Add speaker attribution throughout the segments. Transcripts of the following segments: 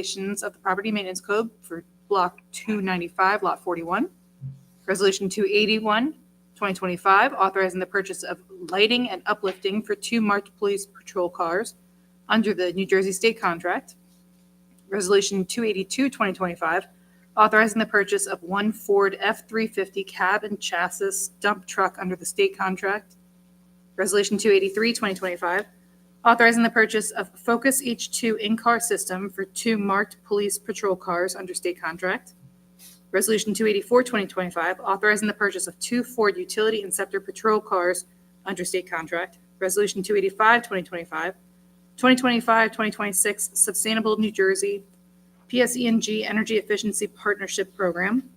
Speaker 1: regulations of the Property Maintenance Code for Block 295, Lot 41. Resolution 281, 2025, authorizing the purchase of lighting and uplifting for two marked police patrol cars under the New Jersey State contract. Resolution 282, 2025, authorizing the purchase of one Ford F-350 cab and chassis dump truck under the state contract. Resolution 283, 2025, authorizing the purchase of Focus H2 in-car system for two marked police patrol cars under state contract. Resolution 284, 2025, authorizing the purchase of two Ford Utility Inceptor patrol cars under state contract. Resolution 285, 2025, 2025, 2026 Sustainable New Jersey PSENG Energy Efficiency Partnership Program.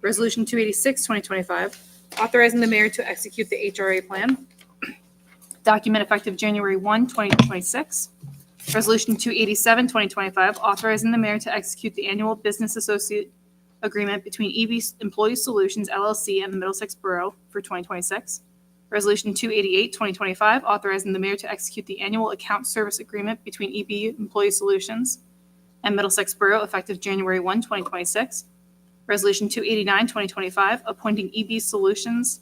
Speaker 1: Resolution 286, 2025, authorizing the mayor to execute the HRA plan document effective January 1, 2026. Resolution 287, 2025, authorizing the mayor to execute the annual business associate agreement between EB Employee Solutions LLC and the Middlesex Borough for 2026. Resolution 288, 2025, authorizing the mayor to execute the annual account service agreement between EB Employee Solutions and Middlesex Borough effective January 1, 2026. Resolution 289, 2025, appointing EB Solutions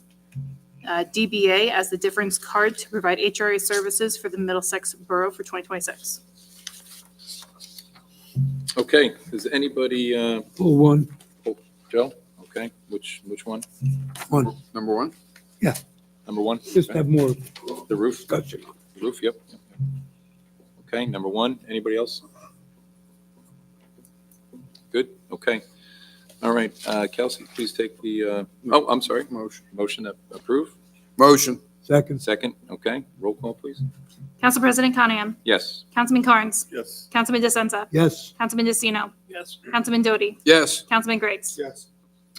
Speaker 1: uh, DBA as the difference card to provide HRA services for the Middlesex Borough for 2026.
Speaker 2: Okay, does anybody, uh,
Speaker 3: Pull Oh, one,
Speaker 2: Joe? Okay, which, which one?
Speaker 3: one,
Speaker 2: Number one?
Speaker 3: Yeah.
Speaker 2: Number one?
Speaker 3: just
Speaker 2: Okay.
Speaker 3: have more
Speaker 2: The roof,
Speaker 3: discussion.
Speaker 2: roof, yep. yep, yep. Okay, number one, anybody else? Good, okay. All right, uh, Kelsey, please take the, uh, oh, I'm sorry. Motion. Motion to approve,
Speaker 4: Motion,
Speaker 3: Second,
Speaker 2: second, okay, roll call, please.
Speaker 1: Council President Conahan.
Speaker 2: Yes,
Speaker 1: Councilman Carnes.
Speaker 5: Yes.
Speaker 1: Councilman DeSenza.
Speaker 3: yes,
Speaker 1: Councilman DeCino.
Speaker 5: Yes.
Speaker 1: Councilman Doty.
Speaker 4: yes.
Speaker 1: Councilman Griggs.
Speaker 5: Yes.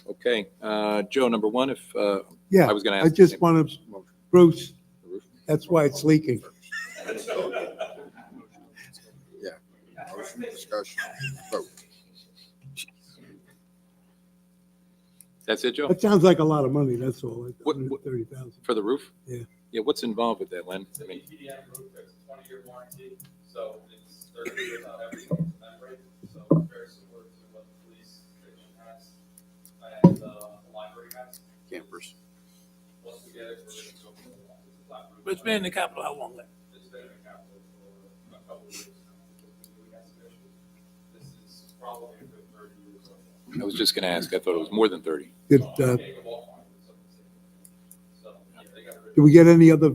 Speaker 2: okay, uh, Joe, number one, if, uh,
Speaker 3: yeah.
Speaker 2: I was gonna
Speaker 3: I
Speaker 2: ask the
Speaker 3: just
Speaker 2: same-
Speaker 3: want to, Bruce, that's why it's leaking.
Speaker 4: Motion, discussion, vote.
Speaker 2: that's it, Joe,
Speaker 3: That sounds like a lot of money, that's all, like
Speaker 2: What- what-
Speaker 3: 130,000.
Speaker 2: for the roof?
Speaker 3: Yeah.
Speaker 2: Yeah, what's involved with that, Len? I
Speaker 6: It's a
Speaker 2: mean,
Speaker 6: PDM roof, it's a twenty-year warranty, so it's thirty years on every membrane, so it's very similar to what the police station has and uh, the library has.
Speaker 4: Campers.
Speaker 6: Once we get it, we're gonna go for the flat roof.
Speaker 5: It's been in the capital how long then?
Speaker 6: It's been in the capital for a couple of years now. We've been doing excavation. This is probably a good thirty years old.
Speaker 2: I was just gonna ask, I thought it was more than thirty.
Speaker 3: Did, uh,
Speaker 6: Take a walk on it, so it's- So, yeah, they got rid
Speaker 3: did
Speaker 6: of it.
Speaker 3: we get any other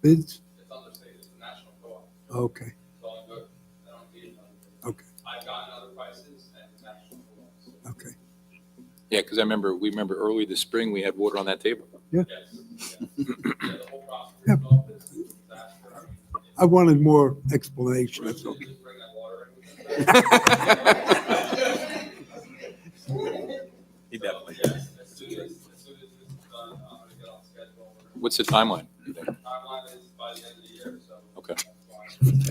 Speaker 3: bids?
Speaker 6: It's understated, it's a national co-op.
Speaker 3: Okay,
Speaker 6: It's all good. I don't need another.
Speaker 3: Okay.
Speaker 6: I've gotten other prices and it's actually cool. So,
Speaker 3: okay.
Speaker 2: Yeah, because I remember, we remember early this spring, we had water on that table.
Speaker 6: Yes, yes. Yeah, the whole process
Speaker 3: Yeah.
Speaker 6: itself is a disaster. I mean,
Speaker 3: I wanted more explanation,
Speaker 6: Bruce
Speaker 3: that's all.
Speaker 6: didn't just bring that water in.
Speaker 2: He
Speaker 6: So, yes, As soon as, as soon as this is done, I'm gonna get on schedule.
Speaker 2: What's the timeline? you think?
Speaker 6: Timeline is by the end of the year, so.
Speaker 2: Okay.
Speaker 6: That's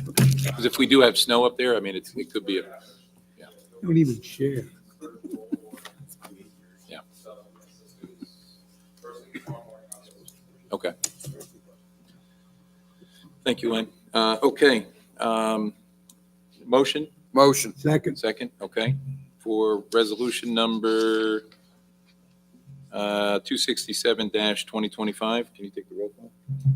Speaker 6: why-
Speaker 2: Because if we do have snow up there, I mean, it's, it could be, a
Speaker 3: Don't even share.
Speaker 2: Yeah.
Speaker 6: So, yes, as soon as, first thing tomorrow morning, I'll be-
Speaker 2: okay. Thank you, Len. Uh, okay, um, motion,
Speaker 4: Motion,
Speaker 3: Second,
Speaker 2: second, okay, for resolution number uh, two sixty-seven twenty twenty-five. Can you take the roll call?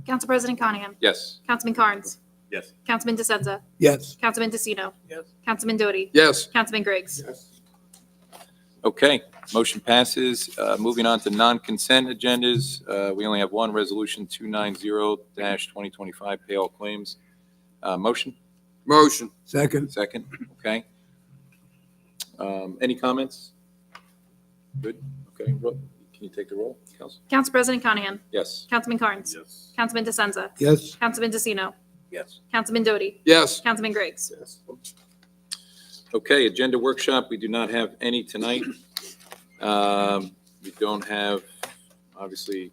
Speaker 1: Council President Conahan.
Speaker 2: Yes,
Speaker 1: Councilman Carnes.
Speaker 5: Yes.
Speaker 1: Councilman DeSenza.
Speaker 3: yes,
Speaker 1: Councilman DeCino.
Speaker 5: Yes.
Speaker 1: Councilman Doty.
Speaker 4: yes.
Speaker 1: Councilman Griggs.
Speaker 2: okay, motion passes. Uh, moving on to non-consent agendas, uh, we only have one, resolution two nine zero twenty twenty-five, pay all claims. Uh, motion?
Speaker 4: Motion,
Speaker 3: second,
Speaker 2: Second, okay. Um, Any comments? Good, okay, Ro- can you take the roll, Council?
Speaker 1: Council President Conahan.
Speaker 2: Yes,
Speaker 1: Councilman Carnes.
Speaker 5: Yes.
Speaker 1: Councilman DeSenza.
Speaker 3: yes,
Speaker 1: Councilman DeCino.
Speaker 5: Yes.
Speaker 1: Councilman Doty.
Speaker 4: yes.
Speaker 1: Councilman Griggs.
Speaker 2: okay, agenda workshop, we do not have any tonight. Um, We don't have, obviously,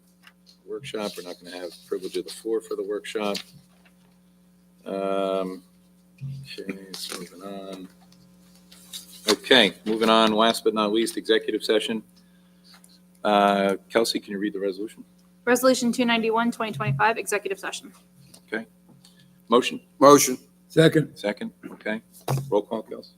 Speaker 2: workshop, we're not going to have privilege of the floor for the workshop. Um, Okay, so moving on. Okay, moving on, last but not least, executive session. Uh, Kelsey, can you read the resolution?
Speaker 1: Resolution 291, 2025, executive session.
Speaker 2: Motion?
Speaker 4: Motion,
Speaker 3: second,
Speaker 2: Second, okay. Roll call, Kels.